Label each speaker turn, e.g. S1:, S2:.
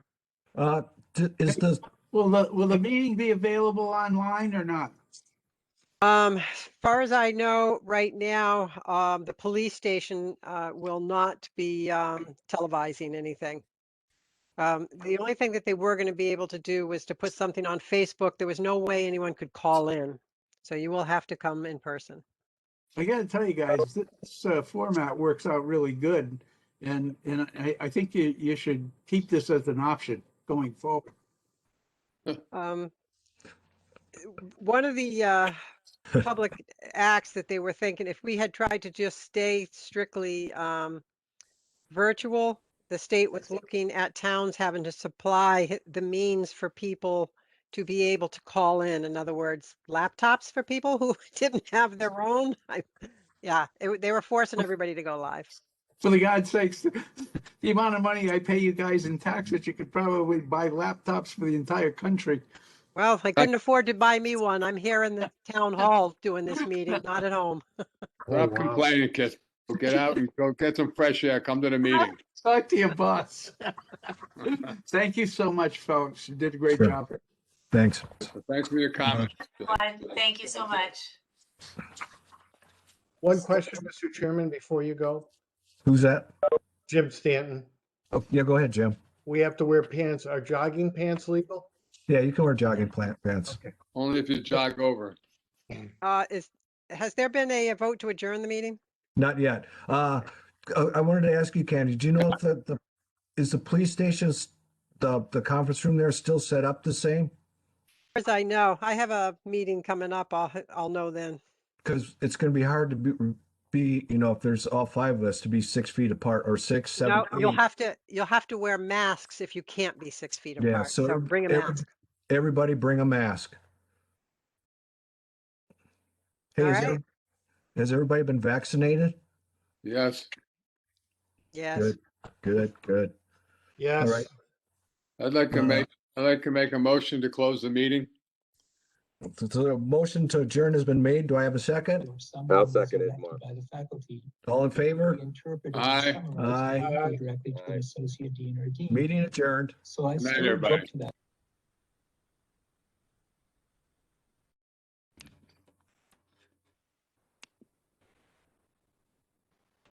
S1: Uh, d- is the,
S2: Will the, will the meeting be available online or not?
S3: Um, as far as I know, right now, um, the police station, uh, will not be, um, televising anything. Um, the only thing that they were gonna be able to do was to put something on Facebook. There was no way anyone could call in. So you will have to come in person.
S2: I gotta tell you guys, this uh, format works out really good. And, and I, I think you, you should keep this as an option going forward.
S3: Um, one of the, uh, public acts that they were thinking, if we had tried to just stay strictly, um, virtual, the state was looking at towns having to supply hi- the means for people to be able to call in, in other words, laptops for people who didn't have their own. I- Yeah, it w- they were forcing everybody to go live.
S2: For the God's sakes, the amount of money I pay you guys in taxes, you could probably buy laptops for the entire country.
S3: Well, I couldn't afford to buy me one. I'm here in the town hall doing this meeting, not at home.
S4: Stop complaining, kids. Go Get out and go get some fresh air. Come to the meeting.
S2: Talk to your boss. Thank you so much, folks. You did a great
S1: Sure.
S2: job.
S1: thanks.
S4: Thanks for your comments.
S5: Thank you so much.
S6: One question, Mr. Chairman, before you go.
S1: Who's that?
S6: Jim Stanton,
S1: Oh, yeah, go ahead, Jim.
S6: we have to wear pants. Are jogging pants legal?
S1: Yeah, you can wear jogging plant pants.
S4: Only if you jog over.
S3: Uh, is, has there been a vote to adjourn the meeting?
S1: Not yet. Uh, I, I wanted to ask you, Candy, do you know if the, the, is the police station's, the, the conference room there still set up the same?
S3: As I know, I have a meeting coming up. I'll, h- I'll know then.
S1: Because it's gonna be hard to be, be, you know, if there's all five of us to be six feet apart or six, seven.
S3: No, you'll
S1: eight.
S3: have to, you'll have to wear masks if you can't be six feet
S1: Yeah,
S3: apart.
S1: so
S3: So bring a
S1: every-
S3: mask.
S1: Everybody bring a mask. Hey,
S3: All
S1: is
S3: right.
S1: every- has everybody been vaccinated?
S4: Yes,
S3: Yes.
S1: Good, good, good.
S6: Yes.
S1: right.
S4: I'd like to make, I'd like to make a motion to close the meeting.
S1: So the motion to adjourn has been made. Do I have a second?
S7: I'll second it, Mark.
S8: By the faculty.
S1: All in favor?
S8: the interpreter is
S4: Aye.
S8: summarized
S1: Aye.
S8: and referred Directly to
S7: Aye.
S8: an associate dean or dean.
S1: Meeting adjourned.
S8: So I.
S4: Good night,
S8: still object
S4: everybody.
S8: to that.